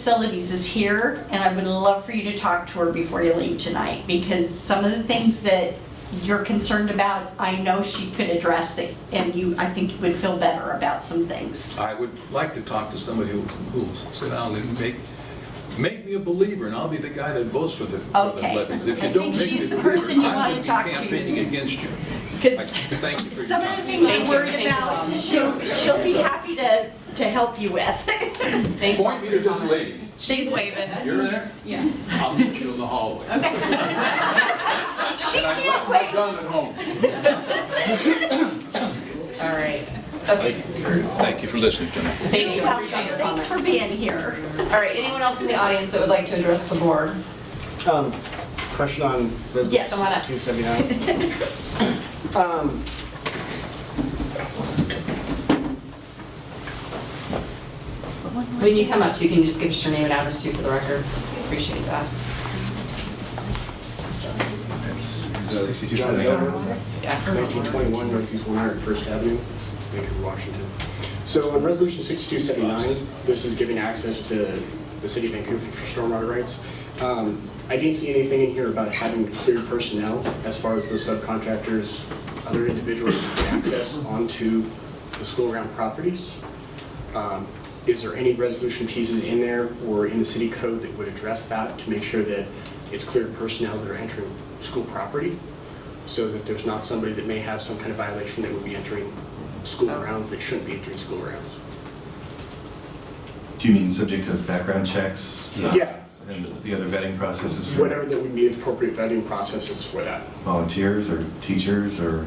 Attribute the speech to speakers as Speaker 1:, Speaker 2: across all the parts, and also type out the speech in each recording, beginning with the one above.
Speaker 1: Facilities is here, and I would love for you to talk to her before you leave tonight, because some of the things that you're concerned about, I know she could address that, and you, I think you would feel better about some things.
Speaker 2: I would like to talk to somebody who- who'll sit down and make, make me a believer, and I'll be the guy that votes for the, for the
Speaker 1: Okay.
Speaker 2: levies. If
Speaker 1: I
Speaker 2: you don't
Speaker 1: think
Speaker 2: make me
Speaker 1: she's
Speaker 2: a
Speaker 1: the
Speaker 2: believer,
Speaker 1: person you
Speaker 2: I
Speaker 1: wanna
Speaker 2: will be
Speaker 1: talk to.
Speaker 2: campaigning against you. I
Speaker 1: 'Cause
Speaker 2: Thank you for your
Speaker 1: some of the
Speaker 2: time.
Speaker 1: things you're worried about, she'll, she'll be happy to, to help you with.
Speaker 3: Thank
Speaker 2: Point me to this lady.
Speaker 3: She's waving.
Speaker 2: You're there?
Speaker 1: Yeah.
Speaker 2: I'll meet you in the hallway. And
Speaker 1: She
Speaker 2: I
Speaker 1: can't
Speaker 2: left
Speaker 1: wait.
Speaker 2: my gun at home.
Speaker 3: All right. Okay.
Speaker 4: Thank you for listening to me.
Speaker 3: Thank you.
Speaker 1: You're
Speaker 3: I
Speaker 1: welcome.
Speaker 3: appreciate your
Speaker 1: Thanks for
Speaker 3: comments.
Speaker 1: being here.
Speaker 3: All right, anyone else in the audience that would like to address the board?
Speaker 5: Um, question on
Speaker 1: Yes.
Speaker 3: Come on up.
Speaker 5: resolution two seventy-nine. Um,
Speaker 3: When you come up, you can just give us your name and address too for the record. Appreciate that.
Speaker 5: John Doe,
Speaker 3: Yeah.
Speaker 5: nineteen twenty-one, North one hundred First Avenue, Vancouver, Washington. So on resolution sixty-two seventy-nine, this is giving access to the city of Vancouver for stormwater rights. Um, I didn't see anything in here about having clear personnel as far as those subcontractors, other individuals with access onto the school-around properties. Um, Is there any resolution pieces in there or in the city code that would address that to make sure that it's clear personnel that are entering school property? So that there's not somebody that may have some kind of violation that would be entering school grounds that shouldn't be entering school grounds?
Speaker 6: Do you mean subject to background checks?
Speaker 5: Yeah.
Speaker 6: And the other vetting processes
Speaker 5: Whatever
Speaker 6: for
Speaker 5: that would be appropriate vetting processes for that.
Speaker 6: volunteers or teachers or?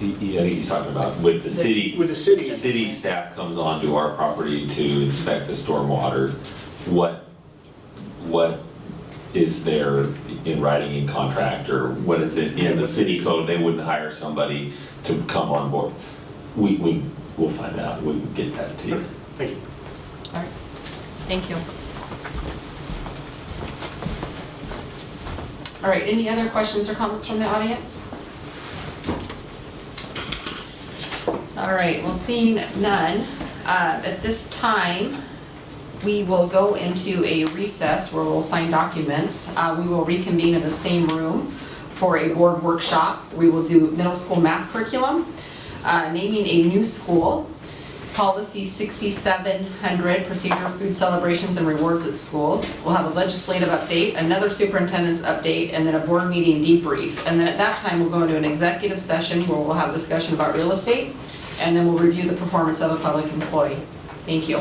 Speaker 7: Yeah, he's talking about with the city.
Speaker 5: With the city.
Speaker 7: City staff comes onto our property to inspect the stormwater. What, what is there in writing in contract or what is it in the city code? They wouldn't hire somebody to come on board. We, we, we'll find out. We can get that to you.
Speaker 5: Thank you.
Speaker 3: All right. Thank you. All right, any other questions or comments from the audience? All right, well, seeing none, uh, at this time, we will go into a recess where we'll sign documents. Uh, We will reconvene in the same room for a board workshop. We will do middle school math curriculum, uh, naming a new school, Policy 6700, procedure of food celebrations and rewards at schools. We'll have a legislative update, another superintendent's update, and then a board meeting debrief. And then at that time, we'll go into an executive session where we'll have a discussion about real estate, and then we'll review the performance of a public employee. Thank you.